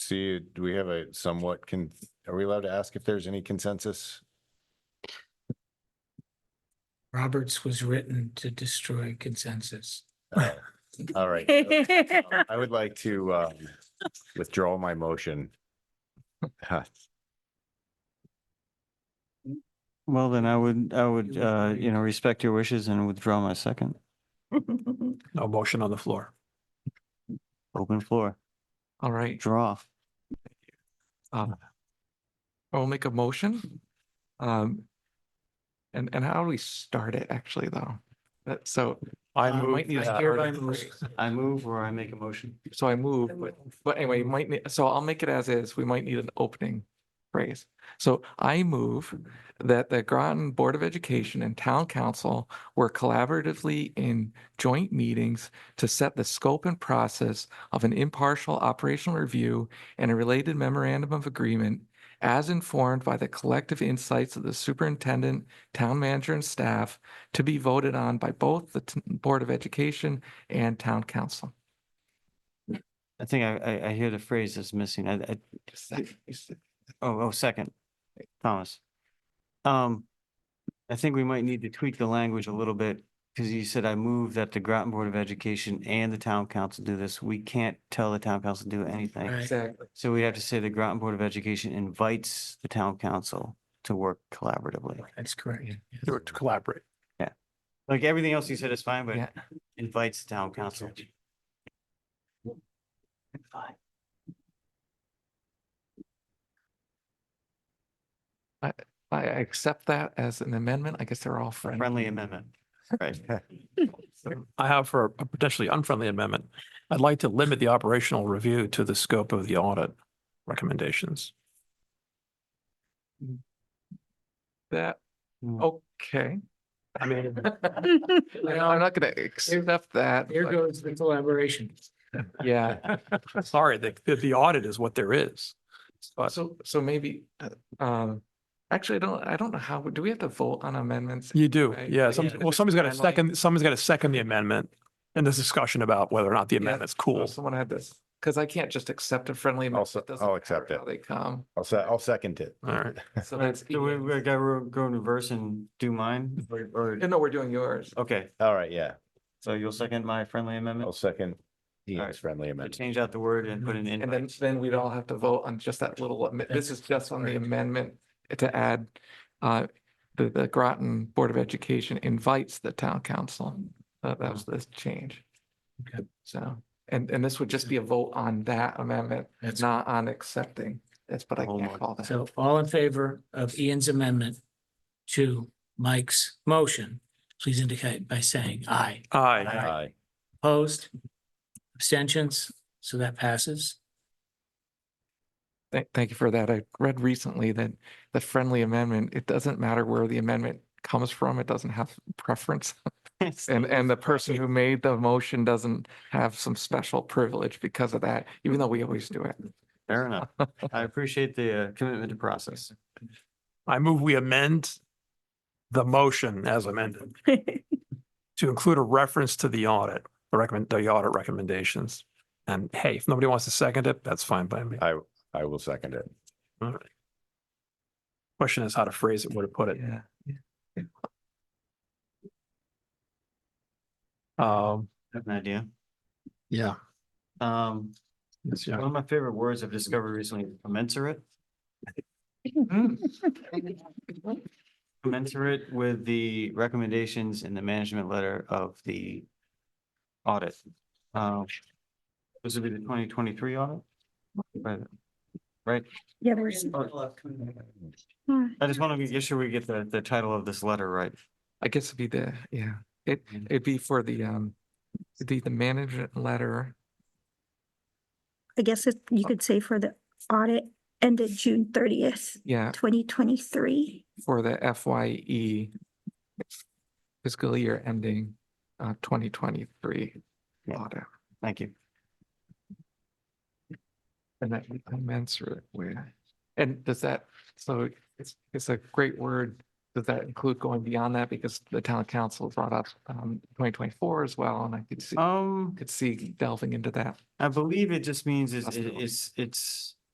see, do we have a somewhat can, are we allowed to ask if there's any consensus? Roberts was written to destroy consensus. Uh, All right. I would like to uh, withdraw my motion. Uh, Well, then I would, I would, uh, you know, respect your wishes and withdraw my second. No motion on the floor. Open floor, All right, draw. I'll make a motion. Um, and, and how do we start it actually though? That, so, I Uh, move. might need a that- hair I dye. move- I move or I make a motion. so I move, but, but anyway, you might need, so I'll make it as is. We might need an opening phrase. So I move that the Groton Board of Education and Town Council work collaboratively in joint meetings to set the scope and process of an impartial operational review and a related memorandum of agreement as informed by the collective insights of the superintendent, town manager, and staff to be voted on by both the t- Board of Education and Town Council. I think I, I, I hear the phrase is missing. I, I, oh, oh, second, Thomas. Um, I think we might need to tweak the language a little bit because you said I move that the Groton Board of Education and the town council do this. We can't tell the town council to do anything. Right. Exactly. So we have to say the Groton Board of Education invites the town council to work collaboratively. That's correct. To to collaborate. Like everything else you said is fine, Yeah. but invites the town council. Fine. I I accept that as an amendment. I guess they're all friendly. Friendly amendment. Right. I have for a potentially unfriendly amendment. I'd like to limit the operational review to the scope of the audit recommendations. That, Mm. okay. I mean, I know, I'm not gonna accept that. Here but goes the collaboration. Yeah, sorry, the, the- the audit is what there is. But so, so maybe, uh, um, actually, I don't, I don't know how, do we have to vote on amendments? you do, Right. yeah. Yeah. some- Well, somebody's got to Timeline. second, someone's got to second the amendment and this discussion about whether or not the Yeah. amendment's Oh, cool. Someone had this, because I can't just accept a friendly. amendment. Also- It doesn't I'll accept matter it. how They come, I'll se- I'll second it. All right. so that's. Do we, we Ian's. gotta go in reverse and do mine or, or- No, we're doing yours. okay, All right, yeah, so you'll second my friendly I'll amendment? second All Ian's right. friendly Or amendment. Change out the word and put an And then, invite. then we'd all have to vote on just that little, amendment. this is just on the Correct. amendment to add, uh, the, the Groton Board of Education invites the town council. That, that was this change. Okay. So, and, and this would just be a vote on that amendment, That's, not on accepting. That's what I Hold can't on. call that. so all in favor of Ian's amendment to Mike's motion, please indicate by saying aye. Aye. Aye. Opposed? Abstentions? So that passes. Thank, thank you for that. I read recently that the friendly amendment, it doesn't matter where the amendment comes from. It doesn't have preference. And, and the person who made the motion doesn't have some special privilege because of that, even though we always do it. Fair enough. I appreciate the uh, commitment to process. I move we amend the motion as amended to include a reference to the audit, the recommend, the audit recommendations. And hey, if nobody wants to second it, that's fine by me. I, I will second it. All right. Question is how to phrase it, where to put it. Yeah. Um, I have an idea. yeah. Um, Yes, one yeah. of my favorite words I've discovered recently, is commensurate. Commensurate with the recommendations in the management letter of the audit. Um, This would be the twenty twenty-three audit? Right. Right? Yeah, there's, I just want to make sure we get the, the title of this letter right. I guess it'd be the, yeah, it, Yeah. it'd be for the, um, it'd be the management letter. I guess it, you could say for the audit ended June thirtieth, Yeah, twenty twenty-three. for the FYE fiscal year ending, uh, twenty twenty-three Yeah. audit. Thank you. And that we commensurate with. And does that, so it's, it's a great word. Does that include going beyond that? Because the town council brought up, um, twenty twenty-four as well, and I could see, Um, could see delving into that. I believe it just means it's, Hospital. it's, it's